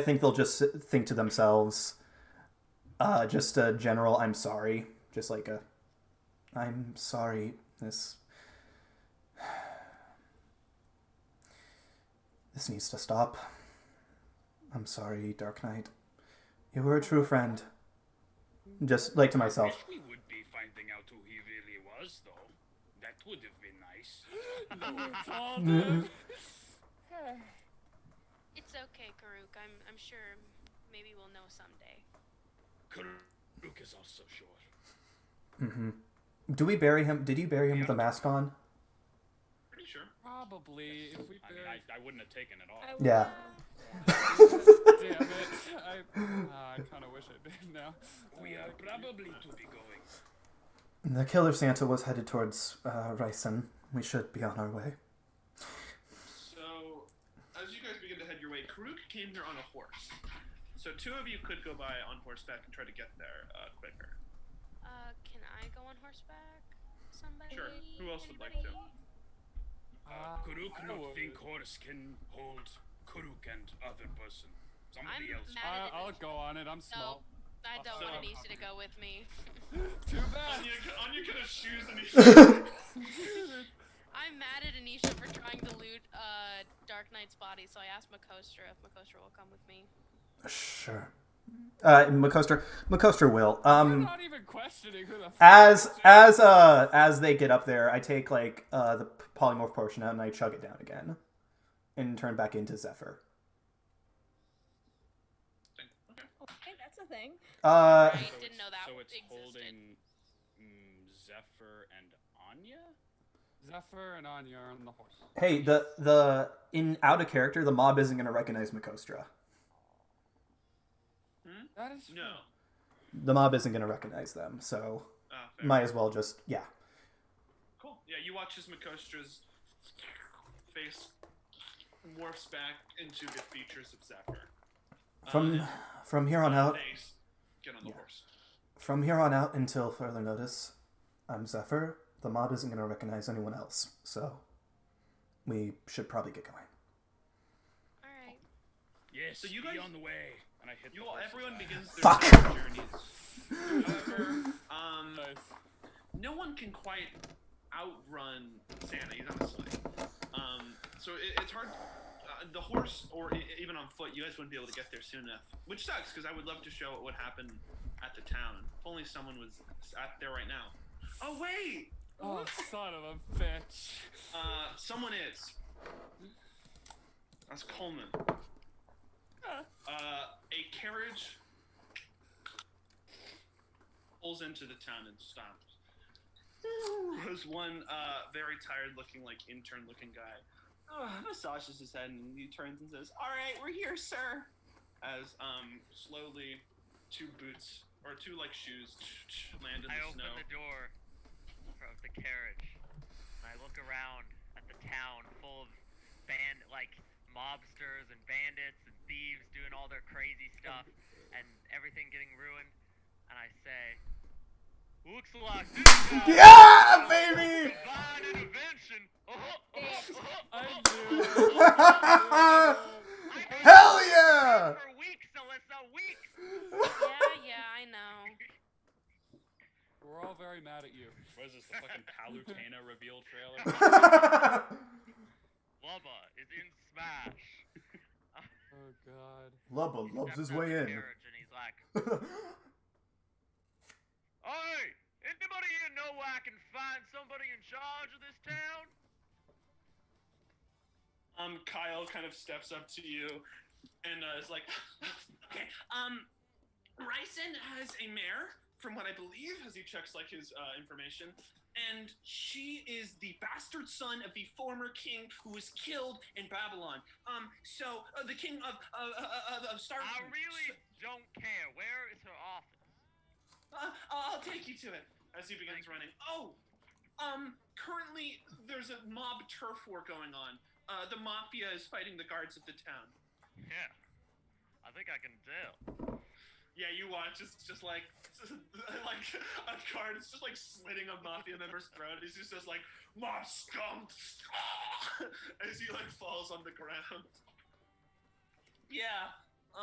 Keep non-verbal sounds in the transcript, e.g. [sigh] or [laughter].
I think they'll just think to themselves, uh, just a general "I'm sorry," just like a "I'm sorry." This this needs to stop. I'm sorry, Dark Knight. You were a true friend. Just like to myself. Wish we would be finding out who he really was, though. That would have been nice. Lord Father! It's okay, Karuk. I'm I'm sure maybe we'll know someday. Karuk is also sure. Do we bury him? Did you bury him with a mask on? Pretty sure. Probably if we I mean, I, buried. I wouldn't have taken it off. I Yeah. Damn it! I, uh, I kind of wish I did now. We are probably to be going. The killer Santa was headed towards uh, Ryson. We should be on our way. So, as you guys begin to head your way, Karuk came here on a horse. So, two of you could go by on horseback and try to get there uh, quicker. Uh, can I go on horseback? Somebody? Sure. Who else would like Anybody? to? Uh, Karuk I not would. think horse can hold Karuk and other person. Somebody I'm else. mad- I, Uh, I'll go on it. I'm No, small. I don't want So- Anissa to go with me. Too bad. Anya, Anya could have shoes and he I'm mad at Anisha for trying to loot uh, Dark Knight's body, so I asked Makostra if Makostra will come with me. Sure. Uh, Macoster, Macoster will. I'm Um, not even questioning who the. F- as as uh as they get up there, I take like uh the polymorph potion out and I chug it down again, and turn back into Zephyr. Okay, that's a thing. Uh, Right. I didn't it's- know that So it's existed. holding mm, Zephyr and Anya? Zephyr and Anya are on the horse. hey, the the in out of character, the mob isn't gonna recognize Macostra. That is No. The mob isn't gonna recognize them, so Ah, fair. might as well just yeah. Cool. Yeah, you watch as Makostra's face morphs back into the features of Zephyr. Uh, From from here on out, They s- get on the horse. From here on out until further notice, I'm Zephyr. The mob isn't going to recognize anyone else, so we should probably get going. All right. Yes, So so you you guys- be on the way. And I hit You the all, horse's everyone eye. begins their Fuck. separate journeys. However, um, nice. no one can quite outrun Santa. He's on a sleigh. Um, so it, it's hard. Uh, the horse, or e- even on foot, you guys wouldn't be able to get there soon enough, which sucks because I would love to show what would happen at the town. If only someone was at there right now. Oh wait, Oh, son of a bitch. uh, someone is. That's Coleman. Uh, a carriage pulls into the town and stops. There's one uh, very tired looking, like intern looking guy. Uh, massages his head and he turns and says, "All right, we're here, sir." As um, slowly, two boots or two like shoes land in I the open snow. the door of the carriage. And I look around at the town full of band like mobsters and bandits and thieves doing all their crazy stuff and everything getting ruined. And I say, "Looks like this town Yeah, baby! [laughs] combined intervention." Uh-huh, uh-huh, uh-huh, I uh-huh. knew. I've been Hell saying yeah! For weeks, Alyssa, weeks. Oh. Yeah, yeah, I know. We're all very mad at you. What is this, the [laughs] fucking Palutena reveal trailer? Lubba is in Smash. Oh god. [laughs] Lubba He lobs his steps out way the in. carriage And he's like, [laughs] Hey, anybody here know where I can find somebody in charge of this town? Um, Kyle kind of steps up to you and uh, is like, okay, um, Ryson has a mare, from what I believe, as he checks like his uh, information, and she is the bastard son of the former king who was killed in Babylon. Um, so uh, the king of uh, uh, uh, of Star. I Ah, really don't care. Where is her office? Uh, I'll I'll take you to it. As he begins running. Oh, um, currently there's a mob turf war going on. Uh, the mafia is fighting the guards of the town. Yeah, I think I can tell. Yeah, you watch. It's just like, [laughs] like a card. It's just like slitting a mafia member's throat. He's just, just like, "Mob scum!" [laughs] as he like falls on the ground. [laughs] Yeah,